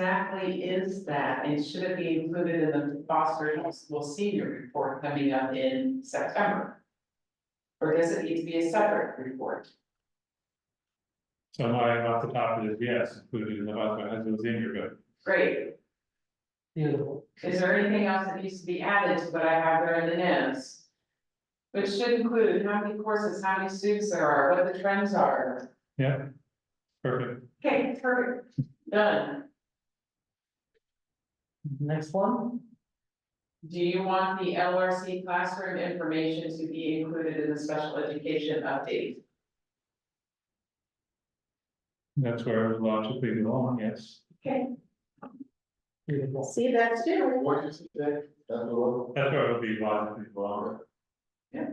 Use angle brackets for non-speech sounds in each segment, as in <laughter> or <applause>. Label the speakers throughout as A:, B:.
A: exactly is that, and should it be included in the Foster High School Senior Report coming up in September? Or does it need to be a separate report?
B: So my, off the top of this, yes, included in the Boston High School senior, but
A: Great,
C: Beautiful.
A: is there anything else that needs to be added to what I have there in the notes? Which should include how many courses, how many students there are, what the trends are,
B: yeah. Perfect,
A: okay, perfect, done.
C: Next one?
A: Do you want the LRC classroom information to be included in the special education update?
B: that's where I was logically belong, yes.
C: Beautiful.
A: See, that's true.
D: What is that, that law?
B: That's where it would be logically belong,
A: Okay,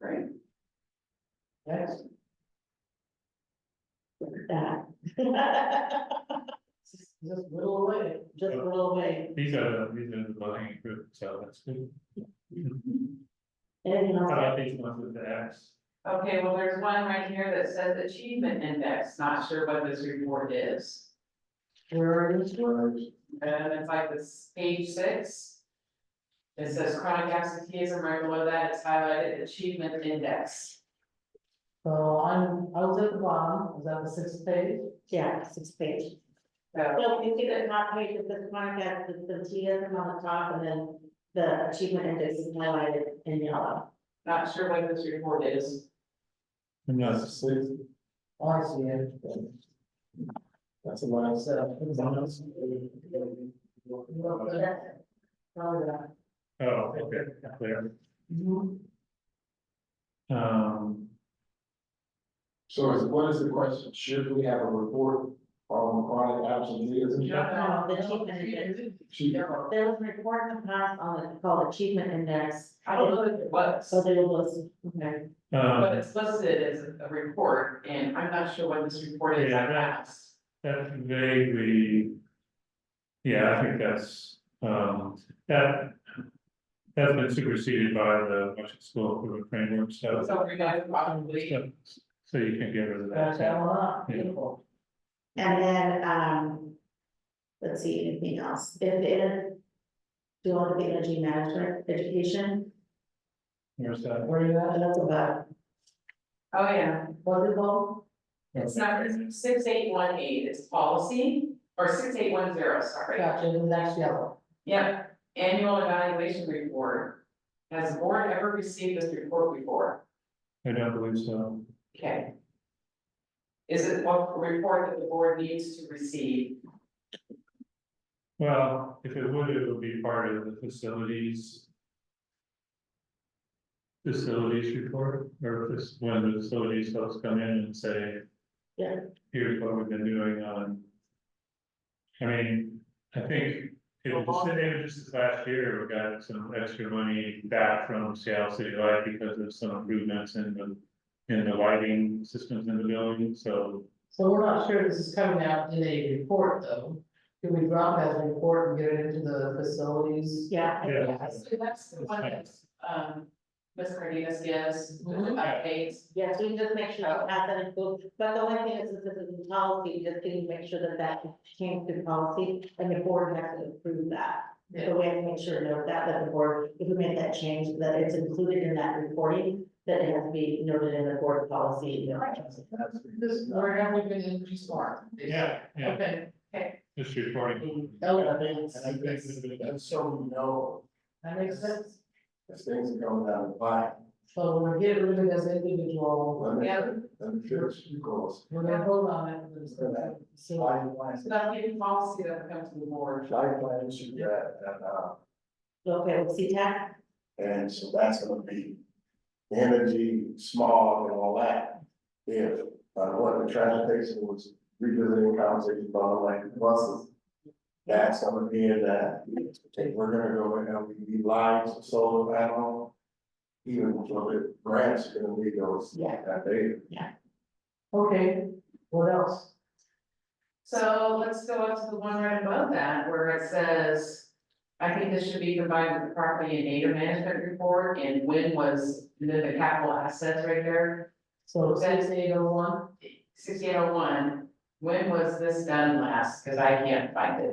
A: great.
C: Next. Look at that. <laughs> Just just little away, just little away.
B: these are, the these are the belonging group, so that's good.
C: And you
B: How
C: know,
B: about these ones with the X?
A: Okay, well, there's one right here that says achievement index, not sure what this report is.
C: where are these words?
A: And it's like this page six. It says chronic absenteeism, right below that, it's highlighted achievement index.
C: So I'm, I was at the bottom, is that the sixth page?
E: Yeah, six page.
A: So,
E: So you see the top page of the chronic absenteeism on the top and then the achievement index is highlighted in yellow.
A: not sure what this report is.
B: And that's-
D: That's six,
C: Oh, I see it.
D: that's a lot.
C: So, it was on those. Look at
D: That's
C: that. Probably that.
B: oh, okay, clear,
C: Mhm.
B: um,
D: So is, what is the question? Should we have a report on chronic absenteeism?
E: No, Oh, the achievement index.
D: She-
E: There was a report in the past on it called achievement index,
A: I don't know if it was,
E: so they will list, okay.
A: but
B: um,
A: it's listed as a report, and I'm not sure what this report is, I asked.
B: that's vaguely. Yeah, I think that's, um, that. That's been superseded by the Washington School Improvement Framework, so,
A: So we're gonna probably,
B: so so you can get rid of
C: Got
B: that.
C: that one up,
B: Yeah.
C: beautiful.
E: And then, um, let's see, anything else? If it, do you want the energy management education?
B: Where's that?
C: Where you at?
E: That's about
A: oh yeah,
E: volleyball,
A: it's not, it's six eight one eight, it's policy, or six eight one zero, sorry.
C: Gotcha, the next yellow.
A: Yep, annual evaluation report. Has the board ever received this report before?
B: I don't believe so,
A: Okay. Is it what report that the board needs to receive?
B: well, if it would, it would be part of the facilities. Facilities report, or this, when the facilities folks come in and say.
E: Yeah.
B: Here's what we've been doing on. I mean, I think it was, just- it was just this last year, we got some extra money back from Seattle City Light because of some improvements in the. In the lighting systems in the building, so
C: So we're not sure this is coming out in a report, though. Can we drop that report and get it into the facilities?
E: yeah. I think
B: Yeah.
E: that's-
A: So that's the one that, um, Ms. Cardenas gives, the
C: Mhm.
A: updates.
E: Yes, we can just make sure that has that included, but the only thing is, is this is policy, just can you make sure that that came to policy, and the board has to approve that. So we have to make sure, note that, that the board, if we make that change, that it's included in that reporting, that it has to be noted in the board policy. you know.
C: This, where have we been in smart?
B: Yeah, yeah.
C: Okay.
B: just reporting.
A: Mm-hmm.
C: Oh,
D: And I think that's so we know,
C: That makes sense.
D: as things are going down the pipe.
C: So we're getting rid of it as individual,
D: Let me,
A: Yeah.
D: let me finish, you goals.
C: we're gonna hold on it. for this- So
D: Life plans,
A: So that's the policy that comes to the board.
D: life plans you got, and, uh,
E: Okay, with CTAC,
D: and so that's gonna be energy, smog and all that. If, uh, what the transportation was revisiting conversation about like buses. That's gonna be in that, if we're gonna go and have LED lights, solar panel. Even for the grants, are gonna be those,
E: yeah,
D: that they,
C: Okay, what else?
A: So let's go up to the one right above that where it says, I think this should be combined with the property and data management report and when was, and then the capital assets right there,
C: So six eight oh one,
A: sixty eight oh one. When was this done last? Cause I can't find it.